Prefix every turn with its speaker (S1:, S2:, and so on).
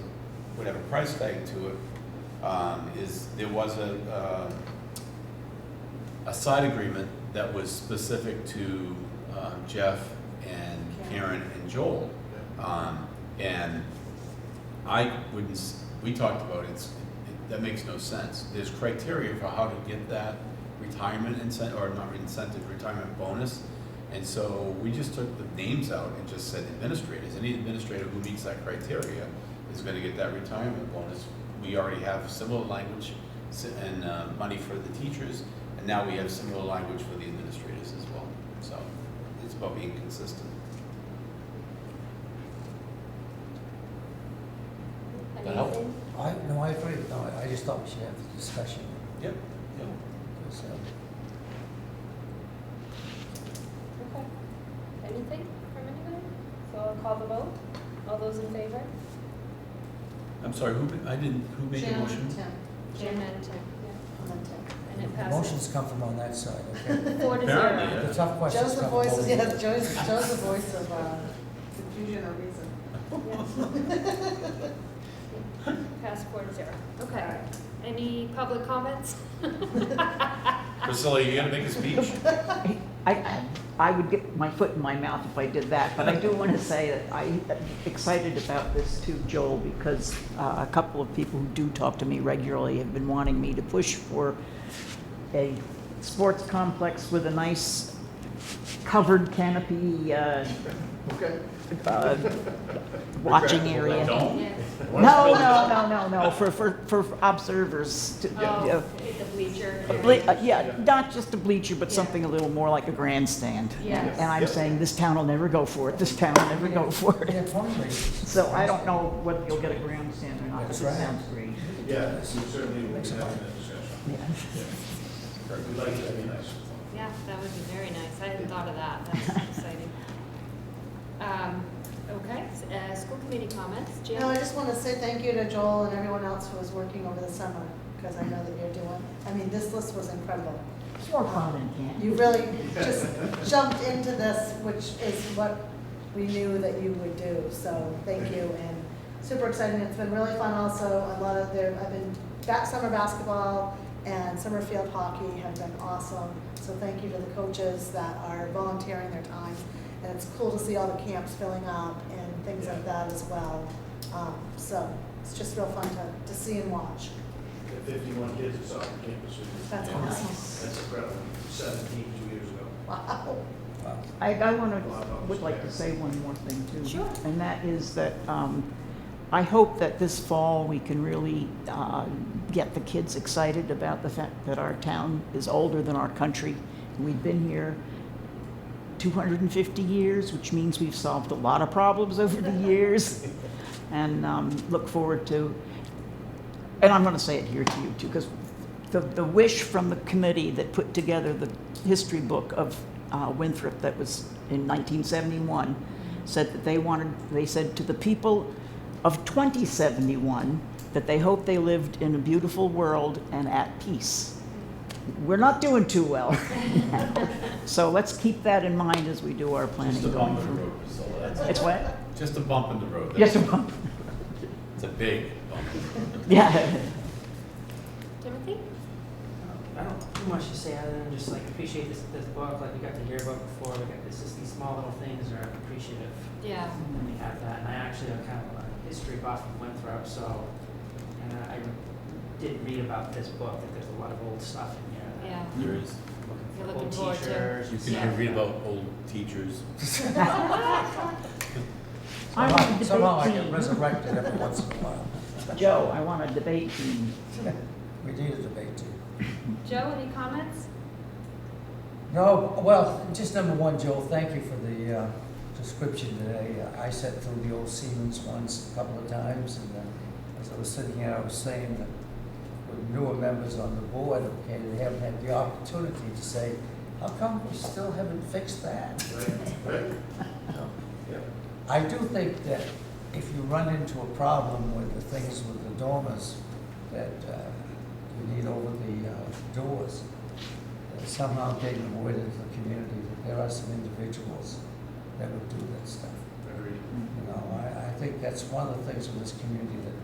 S1: whatever price tag to it, um, is, there was a, uh, a side agreement that was specific to um, Jeff and Karen and Joel. Um, and I wouldn't, s- we talked about it, it's- it, that makes no sense. There's criteria for how to get that retirement incentive, or not incentive, retirement bonus. And so we just took the names out and just said administrators, any administrator who meets that criteria is gonna get that retirement bonus. We already have similar language s- and, uh, money for the teachers, and now we have similar language for the administrators as well. So it's about being consistent. That help?
S2: Amazing.
S3: I, no, I agree, no, I- I just thought we should have the discussion,
S1: Yep, yep.
S3: because, um,
S2: Okay. Anything from anyone? So I'll call the vote. All those in favor?
S1: I'm sorry, who, ma- I didn't, who made the
S4: Jim,
S1: motion?
S4: Tim.
S2: Jim and Tim.
S4: And then Tim.
S2: And it
S3: the
S2: passes
S3: motions come from on that side, okay?
S2: four to
S1: Apparently,
S2: zero.
S1: yeah.
S3: The tough questions
S4: Joe's the
S3: come from
S4: voice,
S3: over
S4: of-
S3: here.
S4: yes, Joe's, Joe's the voice of uh, confusion or reason.
S2: Pass four to zero.
S4: All
S2: Okay.
S4: right.
S2: Any public comments?
S1: Priscilla, you gotta make a speech.
S5: I, I would get my foot in my mouth if I did that, but I do want to say that I am excited about this too, Joel, because uh, a couple of people who do talk to me regularly have been wanting me to push for a sports complex with a nice covered canopy, uh,
S6: Okay.
S5: uh, watching
S6: Regrettable,
S5: area.
S1: Don't.
S2: Yeah.
S5: No, no, no, no, no, for, for, for observers to,
S2: Oh,
S5: uh,
S2: the bleacher.
S5: a ble- uh, Yeah, not just a bleacher, but something a little more like a grandstand.
S2: Yes.
S5: And I'm
S6: Yes.
S5: saying, this town will never go for it, this town will never go for it.
S3: Yeah, fundraisers.
S5: So I don't know whether you'll get a grandstand or not, but it
S3: That's right.
S5: sounds great.
S6: Yeah, we certainly will be having that discussion.
S5: Yeah.
S6: We'd like to, be nice.
S2: Yeah, that would be very nice. I hadn't thought of that. That's exciting. Um, okay, s- uh, school committee comments. Jan?
S4: No, I just want to say thank you to Joel and everyone else who was working over the summer, because I know that you're doing, I mean, this list was incredible.
S5: It's more fun than camp.
S4: You really just jumped into this, which is what we knew that you would do, so thank you, and super exciting, it's been really fun also, a lot of there, I've been, that summer basketball and summer field hockey have been awesome, so thank you to the coaches that are volunteering their time, and it's cool to see all the camps filling up and things like that as well, um, so it's just real fun to, to see and watch,
S6: The Fifty-one kids is off the campus.
S4: that's
S1: Yeah.
S4: awesome,
S6: That's incredible. Seventeen, two years ago.
S4: wow.
S3: Wow.
S5: I, I want to, would like to say one more thing too.
S2: Sure.
S5: And that is that um, I hope that this fall we can really uh, get the kids excited about the fact that our town is older than our country. We've been here 250 years, which means we've solved a lot of problems over the years. And um, look forward to, and I'm going to say it here to you too, because the, the wish from the committee that put together the history book of uh, Winthrop that was in 1971 said that they wanted, they said to the people of 2071 that they hoped they lived in a beautiful world and at peace. We're not doing too well. So let's keep that in mind as we do our planning
S1: Just a
S5: going
S1: bump in the
S5: forward.
S1: road, Priscilla, that's it.
S5: It's what?
S1: Just a bump in the road.
S5: Yes, a bump.
S1: It's a big bump. in the road.
S5: Yeah.
S2: Timothy?
S7: I don't too much to say other than just like appreciate this, this book, like we got to hear about before, we got, this just these small little things are appreciative
S2: Yeah.
S7: when we have that. And I actually am kind of a history buff of Winthrop, so, and I I did read about this book, that there's a lot of old stuff in here. that-
S2: Yeah.
S1: There is,
S2: You're looking
S7: Old
S2: forward to-
S7: teachers.
S1: you
S7: and
S1: can
S7: stuff.
S1: read about old teachers.
S5: I want to
S3: Somehow-
S5: debate
S3: Somehow I get
S5: team.
S3: resurrected every once in a while.
S5: Joe, I want a debate team.
S3: We need a debate too.
S2: Joe, any comments?
S3: No, well, just number one, Joel, thank you for the uh, description today. Uh, I sat through the old Siemens ones a couple of times, and uh, as I was sitting here, I was saying that with newer members on the board, okay, they haven't had the opportunity to say, how come we still haven't fixed that?
S6: Right, right, yeah.
S3: I do think that if you run into a problem with the things with the dormers that uh, you need over the uh, doors, that somehow getting them away to the community, that there are some individuals that would do that stuff.
S6: Agreed.
S3: You know, I, I think that's one of the things with this community that